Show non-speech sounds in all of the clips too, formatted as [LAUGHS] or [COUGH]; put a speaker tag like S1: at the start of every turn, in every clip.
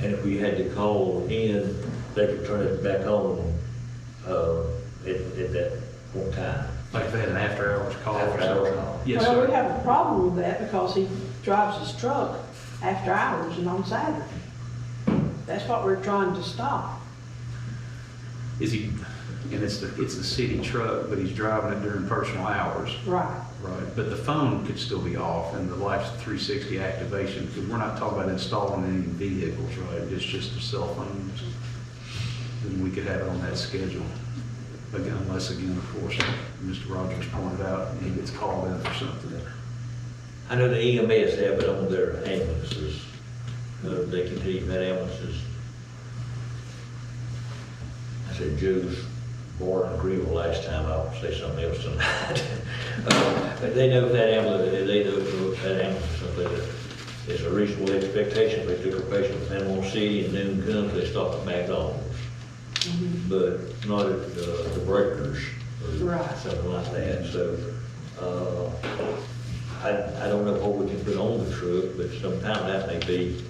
S1: and if we had to call in, they could turn it back on, uh, at, at that point in time.
S2: Like if they had an after-hours call or
S1: After-hours
S2: something.
S1: call.
S2: Yes,
S3: Well, we
S2: sir.
S3: have a problem with that because he drives his truck after hours and on Saturday. That's what we're trying to stop.
S2: Is he, and it's the, it's the city truck, but he's driving it during personal hours.
S3: Right.
S2: Right. But the phone could still be off and the life's 360 activation, because we're not talking about installing any vehicles, right? It's just the cell phones. Then we could have it on that schedule. Again, unless again, of course, Mr. Rogers pointed out, he gets called in for something.
S1: I know the EMS have it on their ambulances, uh, they can keep that ambulances. I said Jews, born in Greenville last time, I'll say something else tonight. [LAUGHS] Uh, But they know that ambulance, they know that ambulance, so that it's a reasonable expectation, if they took a patient with animal C and noon comes, they stop at McDonald's. But not at uh, the Breakers or
S3: Right.
S1: something like that, so, uh, I, I don't know what we can put on the truck, but sometime that may be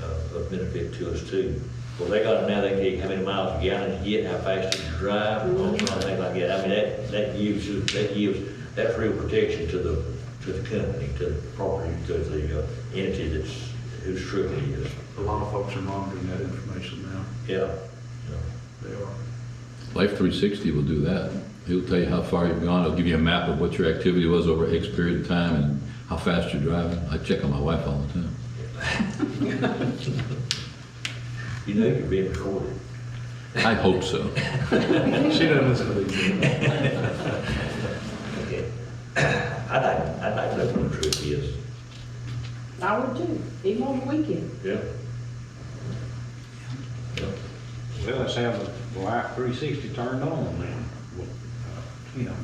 S1: uh, of benefit to us too. Well, they got it now, they can get how many miles a gallon you get, how fast you drive, and all kinds of things like that. I mean, that, that gives, you- that gives, that's real protection to the, to the company, to the property, to the uh, entity that's, whose truck it is.
S2: A lot of folks are monitoring that information now.
S1: Yeah.
S2: They are.
S4: Life 360 will do that. He'll tell you how far you've gone. It'll give you a map of what your activity was over X period of time and how fast you're driving. I check on my wife all the time.
S1: You know you're being recorded.
S4: I hope so.
S2: She doesn't listen to these.
S1: Okay. [COUGHS] I'd like, I'd like to know what the truck is.
S3: I would too, even on the weekend.
S1: Yeah. Yeah.
S5: Well, let's have the light three sixty turned on then, with, uh, you know,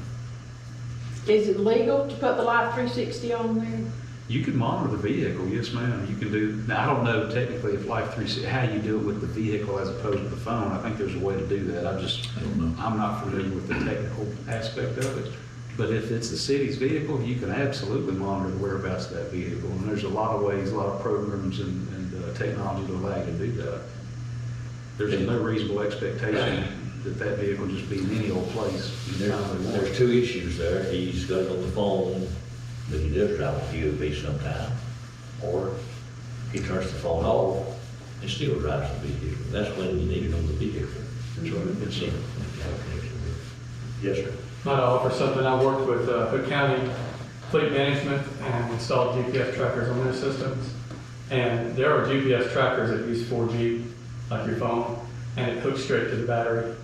S3: Is it legal to put the Life 360 on there?
S2: You can monitor the vehicle, yes, ma'am. You can do, now, I don't know technically if Life 360, how you do it with the vehicle as opposed to the phone. I think there's a way to do that. I just,
S4: I don't know.
S2: I'm not familiar with the technical aspect of it. But if it's the city's vehicle, you can absolutely monitor the whereabouts of that vehicle. And there's a lot of ways, a lot of programs and, and uh, technology to allow you to do that. There's no reasonable expectation that that vehicle just be in any old place. anytime they
S1: There-
S2: want.
S1: There's two issues there. He's got it on the phone, but he does drive with UAV sometime. Or he turns the phone off and still drives the vehicle. That's when you need it on the vehicle. That's right. It's, in- you have a connection with it. yes, sir.
S6: might offer something. I worked with uh, Hood County Fleet Management and installed GPS trackers on their systems. And there are GPS trackers that use 4G, like your phone, and it hooks straight to the battery.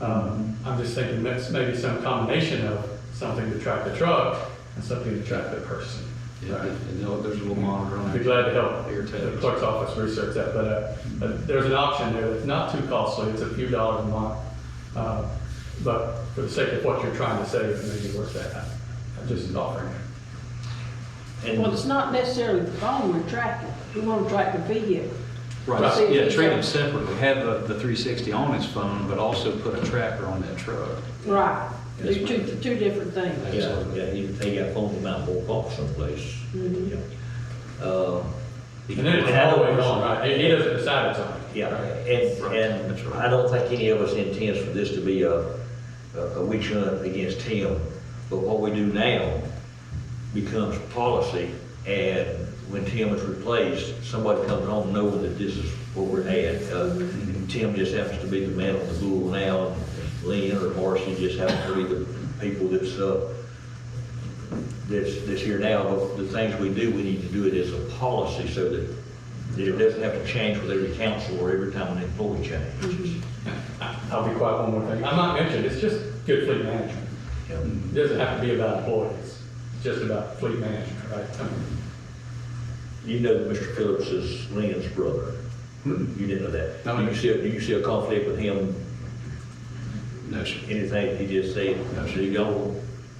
S6: Um, I'm just thinking that's maybe some combination of something to track the truck and something to track the person.
S2: Yeah, and they'll- there's a little monitor on
S6: I'd
S2: there.
S6: be glad to help
S2: Air
S6: the
S2: tags.
S6: clerk's office research that, but, uh, but there's an option there that's not too costly, it's a few dollars a month. Uh, But for the sake of what you're trying to save, maybe worth that, I'm just offering it.
S3: Well,
S1: And
S3: it's not necessarily the phone we're tracking. We want to track the vehicle. Right.
S2: Right, yeah, treat them separately, have the- the 360 on his phone, but also put a tracker on that truck.
S3: Right.
S2: Yes,
S3: Do two,
S2: ma'am.
S3: two different things.
S1: yeah, yeah, he, they got phone him out more off someplace.
S3: Mm-hmm.
S1: Yeah. Uh,
S6: And then it's always on, right, he he doesn't decide it's on.
S1: Yeah, and,
S2: Right, that's
S1: and
S2: right.
S1: I don't think any of us intends for this to be a, a a witch hunt against him, but what we do now becomes policy, and when Tim is replaced, somebody comes on knowing that this is what we're at. Uh,
S2: Mm-hmm.
S1: and Tim just happens to be the man on the bull now, and Lynn or Marcy just happen to be the people that's, uh, that's, that's here now, but the things we do, we need to do it as a policy so that that it doesn't have to change with every council or every time an employee changes.
S6: I'll be quiet one more thing, I'm not mentioning, it's just good fleet management.
S1: Yeah.
S2: Mm-hmm.
S6: It doesn't have to be about employees, it's just about fleet management, right? I mean,
S1: You know that Mr. Phillips is Lynn's brother. You didn't know that.
S2: Hmm. No, I
S1: Do you
S2: didn't.
S1: see, a- do you see a conflict with him,
S2: No, sir.
S1: anything he just said? So y'all,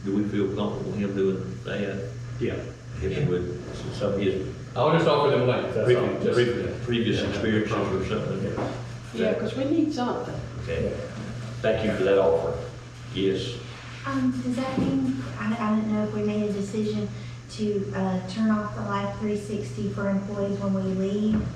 S1: do we feel comfortable him doing that?
S2: Yeah.
S1: Him with some of his
S6: I'll just offer them links, that's all,
S1: previous-
S6: just.
S1: previous previous experiences or something?
S3: Yeah, because we need something.
S1: Okay. Thank you for that offer. Yes.
S7: Um, does that mean, I, I didn't know if we made a decision to, uh, turn off the Life 360 for employees when we leave?